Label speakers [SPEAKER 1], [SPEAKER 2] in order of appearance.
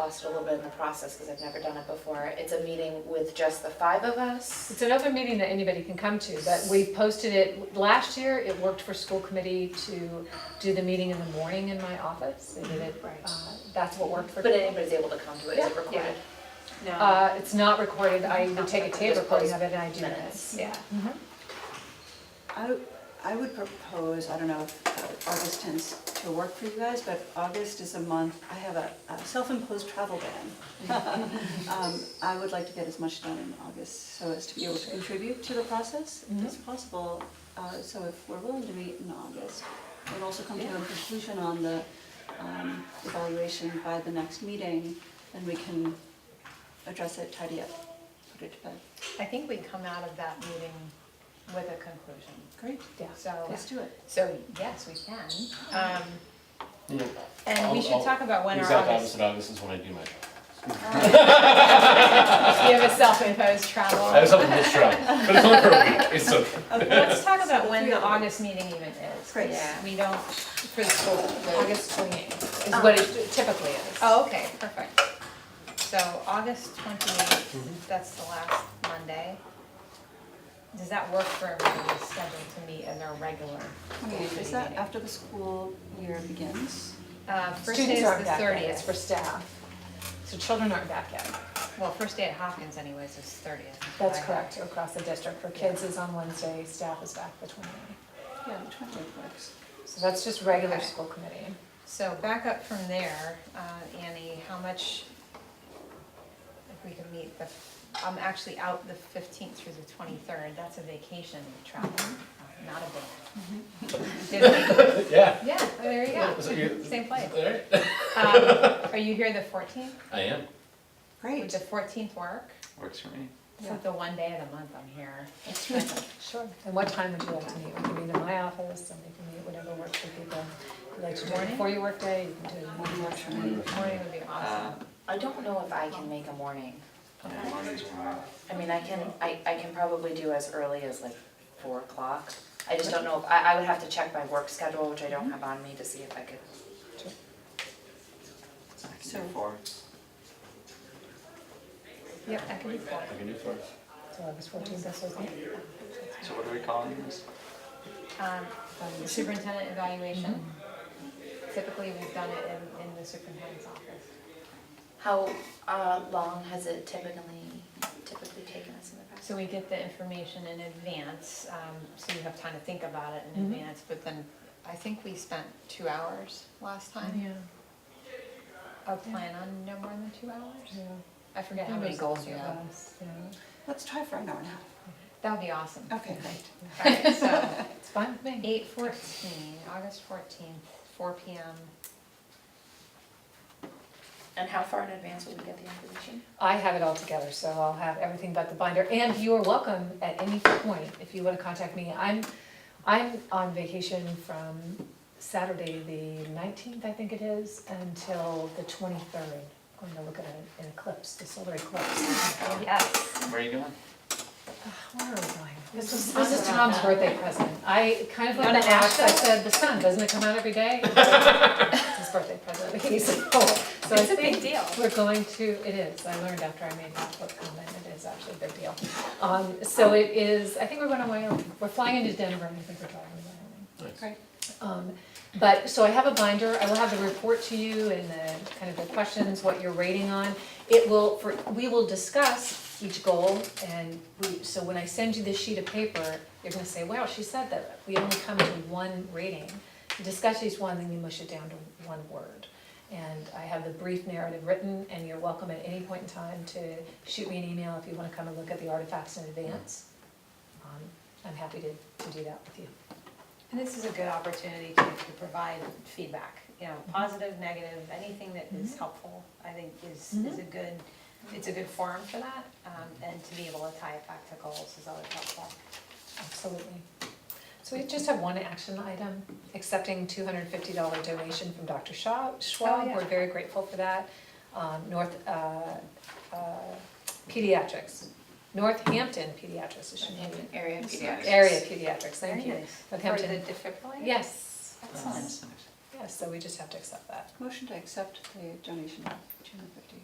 [SPEAKER 1] lost a little bit in the process because I've never done it before. It's a meeting with just the five of us.
[SPEAKER 2] It's an open meeting that anybody can come to, but we posted it, last year, it worked for school committee to do the meeting in the morning in my office. They did it,
[SPEAKER 3] Right.
[SPEAKER 2] uh, that's what worked for.
[SPEAKER 1] But anybody's able to come to it, is it
[SPEAKER 2] Yeah,
[SPEAKER 1] recorded?
[SPEAKER 3] No.
[SPEAKER 2] Uh, it's not recorded, I would take a tape
[SPEAKER 1] Just
[SPEAKER 2] recording
[SPEAKER 1] post
[SPEAKER 2] of it and I do
[SPEAKER 1] minutes.
[SPEAKER 2] this, yeah.
[SPEAKER 3] Mm-hmm.
[SPEAKER 2] Mhm.
[SPEAKER 4] I, I would propose, I don't know if uh, August tends to work for you guys, but August is a month, I have a a self-imposed travel ban. Um, I would like to get as much done in August so as to be able to contribute to the process if it's possible. Uh, So if we're willing to meet in August, we'll also come to a conclusion on the um, evaluation by the next meeting, and we can address it, tidy up, put it to bed.
[SPEAKER 3] I think we come out of that meeting with a conclusion.
[SPEAKER 4] Great.
[SPEAKER 2] Yeah.
[SPEAKER 3] So,
[SPEAKER 4] Let's do it.
[SPEAKER 3] so yes, we can. Um,
[SPEAKER 5] Yeah.
[SPEAKER 3] And we
[SPEAKER 5] I'll-
[SPEAKER 3] should
[SPEAKER 5] I'll-
[SPEAKER 3] talk about when our
[SPEAKER 5] Exact
[SPEAKER 3] August.
[SPEAKER 5] opposite August is when I do my job.
[SPEAKER 3] You have a self-imposed travel.
[SPEAKER 5] I have something to try, but it's only for a week, it's okay.
[SPEAKER 3] Let's talk about when
[SPEAKER 4] Three
[SPEAKER 3] the
[SPEAKER 4] of them.
[SPEAKER 3] August meeting even is.
[SPEAKER 4] Great.
[SPEAKER 3] Yeah, we don't, for the school, the August twenty-eighth.
[SPEAKER 2] Is what it typically is.
[SPEAKER 3] Oh, okay, perfect. So August
[SPEAKER 5] Mm-hmm.
[SPEAKER 3] twenty-eighth, that's the last Monday. Does that work for everybody's schedule to meet in their regular school
[SPEAKER 4] Okay,
[SPEAKER 3] committee
[SPEAKER 4] Is that
[SPEAKER 3] meeting?
[SPEAKER 4] after the school year begins?
[SPEAKER 3] Uh, first day
[SPEAKER 2] Students
[SPEAKER 3] is the
[SPEAKER 2] aren't back yet, it's
[SPEAKER 3] thirtieth.
[SPEAKER 2] for staff. So children aren't back yet.
[SPEAKER 3] Well, first day at Hopkins anyways is thirtieth.
[SPEAKER 2] That's correct, across the district. For kids is on Wednesday, staff is back the 28th.
[SPEAKER 4] Yeah, the twentieth works.
[SPEAKER 2] So that's just regular
[SPEAKER 3] Okay.
[SPEAKER 2] school committee.
[SPEAKER 3] So back up from there, uh, Annie, how much, if we can meet the, I'm actually out the fifteenth through the twenty-third, that's a vacation travel, not a big. Did we?
[SPEAKER 5] Yeah.
[SPEAKER 3] Yeah, well, there you
[SPEAKER 5] Is that
[SPEAKER 3] go,
[SPEAKER 5] you?
[SPEAKER 3] same place.
[SPEAKER 5] All right.
[SPEAKER 3] Um, Are you here the fourteenth?
[SPEAKER 5] I am.
[SPEAKER 3] Would
[SPEAKER 4] Great.
[SPEAKER 3] the fourteenth work?
[SPEAKER 5] Works for me.
[SPEAKER 3] It's like the one day of the month I'm here.
[SPEAKER 2] Sure. And what time would you like to meet? We can meet in my office, and we can meet whatever works for people. If you like to do it
[SPEAKER 3] Morning?
[SPEAKER 2] before your workday, you can do it in the morning.
[SPEAKER 3] Morning would be awesome.
[SPEAKER 1] I don't know if I can make a morning.
[SPEAKER 6] Mornings are mine.
[SPEAKER 1] I mean, I can, I, I can probably do as early as like four o'clock. I just don't know, if I, I would have to check my work schedule, which I don't have on me, to see if I could.
[SPEAKER 6] I can do
[SPEAKER 4] So-
[SPEAKER 6] four.
[SPEAKER 3] Yep, that could be cool.
[SPEAKER 5] I can do four.
[SPEAKER 2] So August 14th, that's okay.
[SPEAKER 6] So what are we calling this?
[SPEAKER 3] Um, um, Superintendent evaluation. Typically, we've done it in, in the superintendent's office.
[SPEAKER 1] How, uh, long has it typically, typically taken us in the past?
[SPEAKER 3] So we get the information in advance, um, so you have time to think about it in
[SPEAKER 2] Mhm.
[SPEAKER 3] advance, but then I think we spent two hours last time.
[SPEAKER 2] Yeah,
[SPEAKER 3] A plan on no more than two hours?
[SPEAKER 2] yeah.
[SPEAKER 3] I forget how many goals you have.
[SPEAKER 4] Let's try for an hour and a
[SPEAKER 3] That would be awesome.
[SPEAKER 4] half. Okay, great.
[SPEAKER 3] Alright, so
[SPEAKER 2] It's fine with me.
[SPEAKER 3] eight fourteen, August fourteenth, four P M.
[SPEAKER 1] And how far in advance will we get the information?
[SPEAKER 2] I have it all together, so I'll have everything but the binder, and you are welcome at any point, if you wanna contact me, I'm, I'm on vacation from Saturday, the nineteenth, I think it is, until the twenty-third. Going to look at an eclipse, the solar eclipse.
[SPEAKER 3] Yes.
[SPEAKER 6] Where are you going?
[SPEAKER 2] Where are we going? This is, this is Tom's birthday present, I, kind of like
[SPEAKER 3] Wanna
[SPEAKER 2] the ash, I
[SPEAKER 3] ask him?
[SPEAKER 2] said, the sun, doesn't it come out every day? It's his birthday present, he's, so, so I
[SPEAKER 3] It's a
[SPEAKER 2] think
[SPEAKER 3] big deal.
[SPEAKER 2] we're going to, it is, I learned after I made that book comment, it is actually a big deal. Um, so it is, I think we're going to Wyoming, we're flying into Denver, and I think we're driving to Wyoming.
[SPEAKER 4] Great.
[SPEAKER 2] Um, But, so I have a binder, I will have the report to you and the, kind of the questions, what you're rating on. It will, for, we will discuss each goal and we, so when I send you this sheet of paper, you're gonna say, wow, she said that we only come to one rating. You Discuss each one, then you mush it down to one word. And I have the brief narrative written and you're welcome at any point in time to shoot me an email if you wanna come and look at the artifacts in advance. Um, I'm happy to, to do that with you.
[SPEAKER 3] And this is a good opportunity to, to provide feedback, you know,
[SPEAKER 2] Mm-hmm.
[SPEAKER 3] positive, negative, anything that is helpful, I think is, is
[SPEAKER 2] Mm-hmm.
[SPEAKER 3] a good, it's a good forum for that. Um, and to be able to tie it back to goals is always helpful.
[SPEAKER 2] Absolutely. So we just have one action item, accepting two hundred and fifty dollar donation from Dr. Shaw- Schwab.
[SPEAKER 3] yeah.
[SPEAKER 2] We're very grateful for that. Um, North, uh, uh, pediatrics, Northampton pediatrics, it should be.
[SPEAKER 1] Area
[SPEAKER 6] That's nice.
[SPEAKER 1] pediatrics.
[SPEAKER 2] Area pediatrics, thank
[SPEAKER 3] Very
[SPEAKER 2] you.
[SPEAKER 3] nice. For the
[SPEAKER 2] Northampton,
[SPEAKER 3] defibrillator?
[SPEAKER 2] yes,
[SPEAKER 6] Oh,
[SPEAKER 1] Excellent.
[SPEAKER 6] that's nice.
[SPEAKER 2] yeah, Yeah, so we just have to accept that.
[SPEAKER 4] Motion to accept the donation of two hundred fifty